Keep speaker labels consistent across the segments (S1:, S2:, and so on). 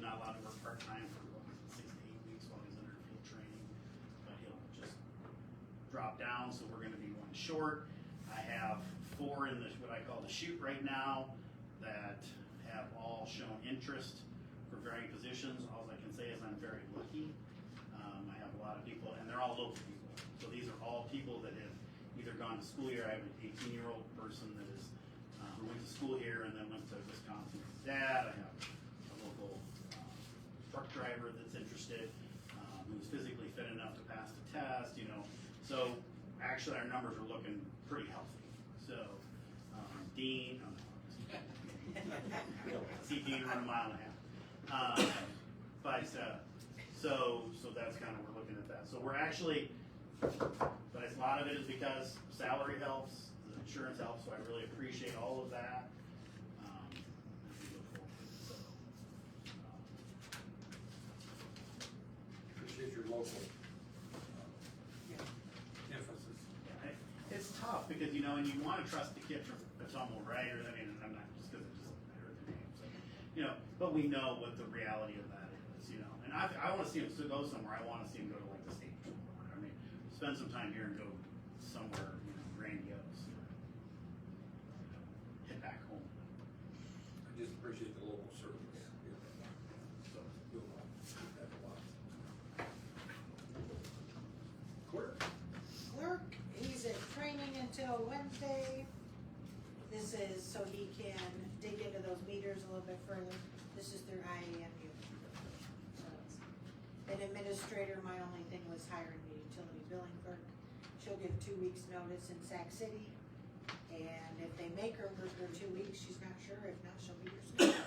S1: not allowed to work part-time for six to eight weeks while he's under field training, but he'll just drop down, so we're gonna be one short. I have four in the, what I call the shoot right now, that have all shown interest for varying positions. All I can say is I'm very lucky. Um, I have a lot of people, and they're all local people. So these are all people that have either gone to school here. I have an eighteen-year-old person that is, uh, who went to school here and then went to Wisconsin with his dad. I have a local, um, truck driver that's interested, um, who's physically fit enough to pass the test, you know. So actually, our numbers are looking pretty healthy. So, um, Dean, oh, no,
S2: um,
S1: see Dean run a mile and a half. Uh, But, uh, so, so that's kind of, we're looking at that. So we're actually, but it's- a lot of it is because salary helps, the insurance helps, so I really appreciate all of that. um, as we look forward. So, um,
S3: Appreciate your local uh, emphasis.
S1: yeah, it- It's tough because, you know, and you want to trust the kid from Potomac, right? Or, I mean, I'm not just because I just heard the name, so, you know, but we know what the reality of that is, you know. And I, I want to see him still go somewhere. I want to see him go to like the state. tour or whatever. I mean, spend some time here and go somewhere, you know, grandiose. or, you know, Head back home.
S3: I just appreciate the local service.
S1: So,
S3: You'll uh, appreciate that a lot. Clerk,
S4: Clerk, he's at training until Wednesday. This is so he can dig into those meters a little bit further. This is through IAMU. So it's- An administrator, my only thing was hiring the utility billing clerk. She'll give two weeks' notice in Sac City. And if they make her work for two weeks, she's not sure. If not, she'll be here soon.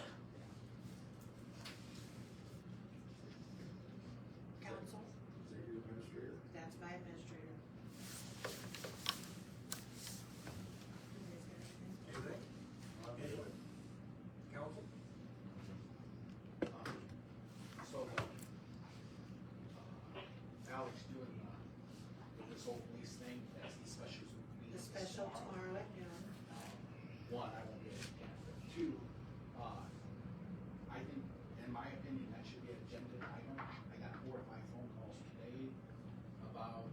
S4: Council?
S3: is that your administrator?
S4: That's my administrator.
S3: Anything? Uh, Anyone? Council?
S2: So, uh, Alex doing, uh, with this whole police thing, that's the special. meeting
S4: The special tomorrow at noon.
S2: Uh, One, I won't be able to attend, but two, uh, I think, in my opinion, that should be an agenda item. I got four of my phone calls today about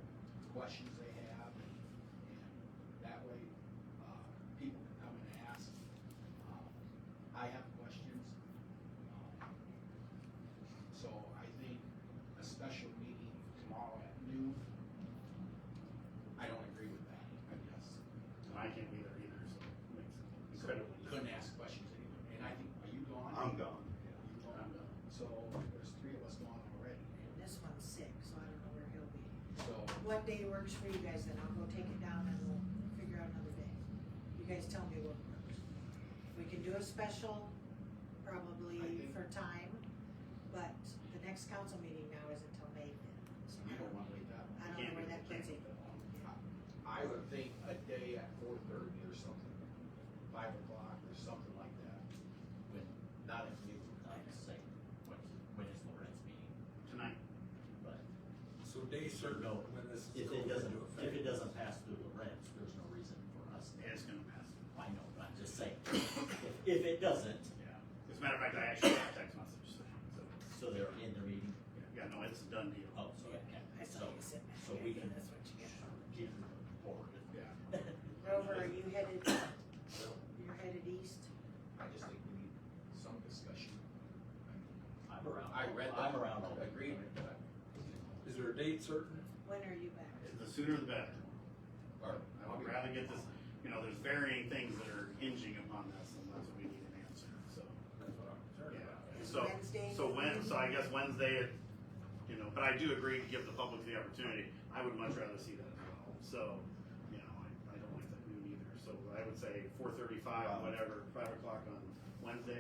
S2: questions they have, and and that way, uh, people can come and ask. Uh, I have questions. Um, So I think a special meeting tomorrow at noon, I don't agree with that, I guess.
S1: I can't be there either, so it makes it incredibly.
S2: You Couldn't ask questions anymore, and I think, are you gone?
S5: I'm gone.
S2: You gone? So there's three of us gone already,
S4: And this one's sick, so I don't know where he'll be.
S2: so,
S4: What day works for you guys, then I'll go take it down and we'll figure out another day. You guys tell me what works. We can do a special, probably
S2: I think-
S4: for time, but the next council meeting now is until May fifth. So
S2: you
S4: I
S2: don't
S4: don't,
S2: wanna wait that long.
S4: I don't know where that puts it.
S2: I would think a day at four thirty or something, five o'clock or something like that,
S6: When,
S2: not at noon.
S6: like, say, when, when is Lawrence meeting?
S1: Tonight,
S6: But
S3: So day certain
S6: No.
S3: when this is
S6: if
S3: going
S6: it
S3: into
S6: doesn't, if it
S3: effect.
S6: doesn't pass through Lawrence, there's no reason for us to.
S1: it's gonna pass.
S6: I know, but I'm just saying, if- if it doesn't,
S1: Yeah. As a matter of fact, I actually got a text message, so, so,
S6: so they're in the meeting,
S1: yeah, no, it's a done deal.
S6: oh, so it can,
S4: I saw
S6: so,
S4: you sitting
S6: so
S4: back
S6: we
S4: there,
S6: can.
S4: that's what you
S6: Get forward.
S1: Yeah.
S4: Rover, are you headed,
S2: Well,
S4: you're headed east?
S2: I just think we need some discussion. I mean,
S6: I'm around.
S2: I read that.
S6: I'm around all day.
S2: Agreement, but,
S3: Is there a date certain?
S4: When are you back?
S1: The sooner the better.
S2: or,
S1: I would rather get this, you know, there's varying things that are hinging upon this, and that's what we need an answer, so.
S3: That's what I'm concerned about.
S1: yeah. So,
S4: Wednesday?
S1: so when, so I guess Wednesday, at- you know, but I do agree to give the public the opportunity. I would much rather see that as well, so, you know, I, I don't like that noon either, so I would say four thirty-five, whatever, five o'clock on Wednesday,